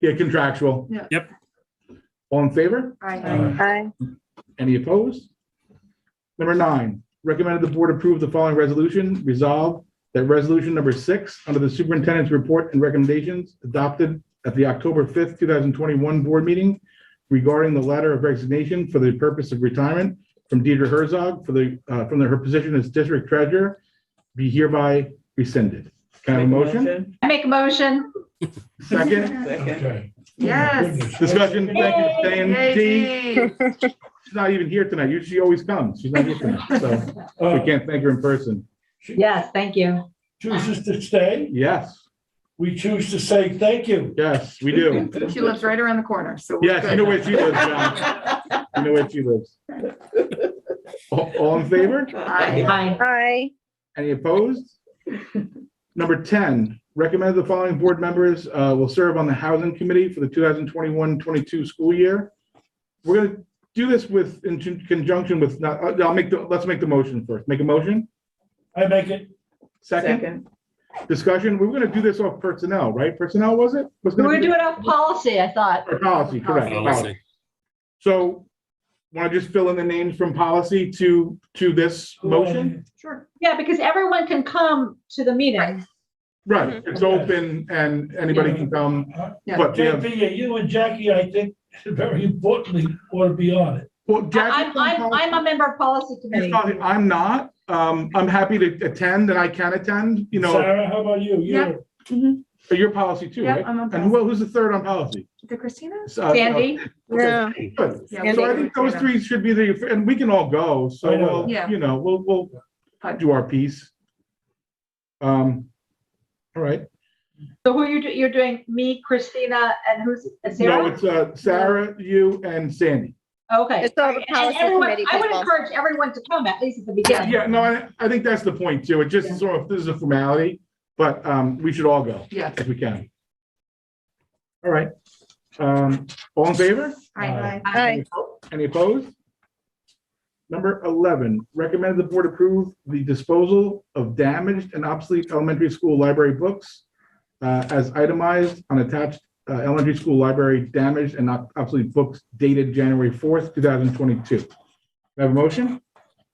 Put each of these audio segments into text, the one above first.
Yeah, contractual. Yeah. Yep. All in favor? Aye. Aye. Any opposed? Number nine, recommended the board approve the following resolution. Resolve that resolution number six, under the superintendent's report and recommendations adopted at the October 5th, 2021 board meeting regarding the letter of resignation for the purpose of retirement from Deidre Herzog for the, uh, from her position as district treasurer be hereby rescinded. Can I have a motion? I Make a motion. Second, Second. Okay. Yes. discussion, thank you, Diane T. Yay. She's not even here tonight. Usually she always comes. She's not here tonight, so we Uh, can't thank her in person. Yes, thank you. Chooses to stay, Yes, we choose to say thank you. yes, we do. She lives right around the corner, so. we're Yes, you know good. where she lives, John. You know where she lives. All all in favor? Aye. Aye. Aye. Any opposed? Number 10, recommend the following board members uh, will serve on the Housing Committee for the 2021-22 school year. We're going to do this with, in conjunction with, not- I'll make, the let's make the motion first. Make a motion? I make it, Second? discussion, we were gonna do this off personnel, right? Personnel, was it? Was We were gonna be- doing off policy, I thought. Or policy, correct. Oh, let's policy. see. So, wanna just fill in the names from policy to, to this motion? Sure. Yeah, because everyone can come to the meeting. Right, Mm-hmm. it's open and anybody can come, Yeah. but we have, JP, you and Jackie, I think, very importantly, ought to be on it. well, I- Jackie. I'm, I'm, I'm a member of policy committee. I'm not, um, I'm happy to attend and I can attend, you know, Sarah, how about you? Yeah. You're- your policy too, Yeah, right? I'm on. And who, who's the third on policy? The Christina? S- uh, uh, Sandy? okay, Good. Yeah, So we I can think those do that. three should be the, and we can all go, so I know. we'll, Yeah. you know, we'll, we'll Fine. do our piece. Um, all right, So who you, do- you're doing, me, Christina, and who's, and no, Sarah? it's uh, Sarah, you and Sandy. Okay. It's all the And- and policy everyone- committee I would people. encourage everyone to come, at least at the beginning. Yeah, no, I, I think that's the point too. It Yeah. just sort of, this is a formality, but, um, we should all go Yeah. if we can. All right, um, all in favor? Aye. Aye. Any opposed? Number 11, recommend the board approve the disposal of damaged and obsolete elementary school library books uh, as itemized on attached uh, elementary school library damaged and ob- obsolete books dated January 4th, 2022. Do I Have a motion?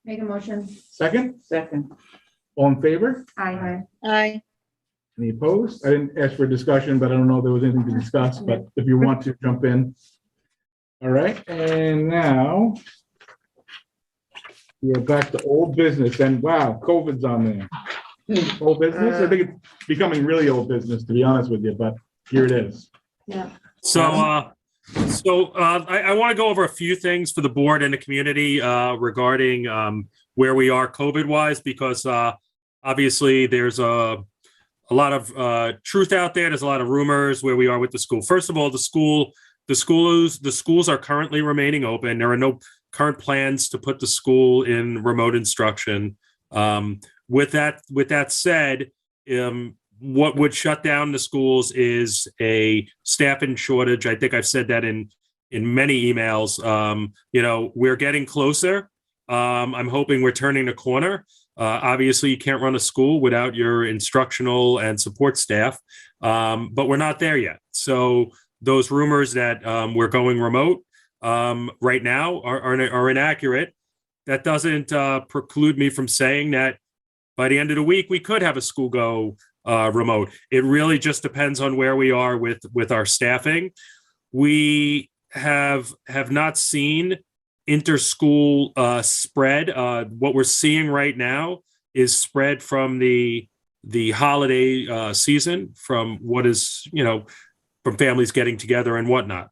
Make a motion. Second? Second. All in favor? Aye. Aye. Any opposed? I didn't ask for discussion, but I don't know if there was anything to discuss, but if you want to jump in. All right, and now we are back to old business and wow, COVID's on there. Old business, I think it's becoming really old business, to be honest with you, but here it is. So, uh, so, uh, I, I want to go over a few things for the board and the community, uh, regarding, um, where we are COVID wise, because, uh, obviously there's a, a lot of, uh, truth out there. There's a lot of rumors where we are with the school. First of all, the school, the schools, the schools are currently remaining open. There are no current plans to put the school in remote instruction. Um, with that, with that said, um, what would shut down the schools is a staffing shortage. I think I've said that in in many emails. Um, you know, we're getting closer. Um, I'm hoping we're turning a corner. Uh, obviously, you can't run a school without your instructional and support staff, um, but we're not there yet. So those rumors that um, we're going remote um, right now are, are are inaccurate. That doesn't uh, preclude me from saying that by the end of the week we could have a school go uh, remote. It really just depends on where we are with with our staffing. We have have not seen interschool uh, spread. Uh, what we're seeing right now is spread from the the holiday uh, season, from what is you know from families getting together and whatnot.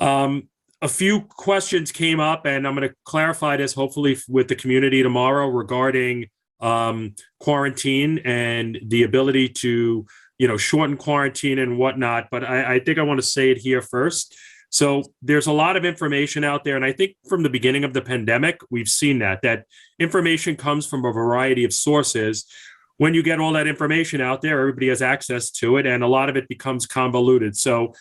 Um, a few questions came up, and I'm going to clarify this hopefully with the community tomorrow regarding um, quarantine and the ability to you know shorten quarantine and whatnot but i, I think i want to say it here first so there's a lot of information out there and i think from the beginning of the pandemic we've seen that that information comes from a variety of sources when you get all that information out there everybody has access to it and a lot of it becomes convoluted so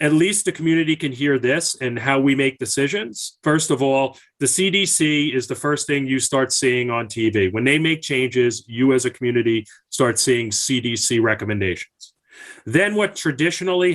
at least the community can hear this and how we make decisions first of all the CDC is the first thing you start seeing on TV. When they make changes, you as a community start seeing CDC recommendations. Then what traditionally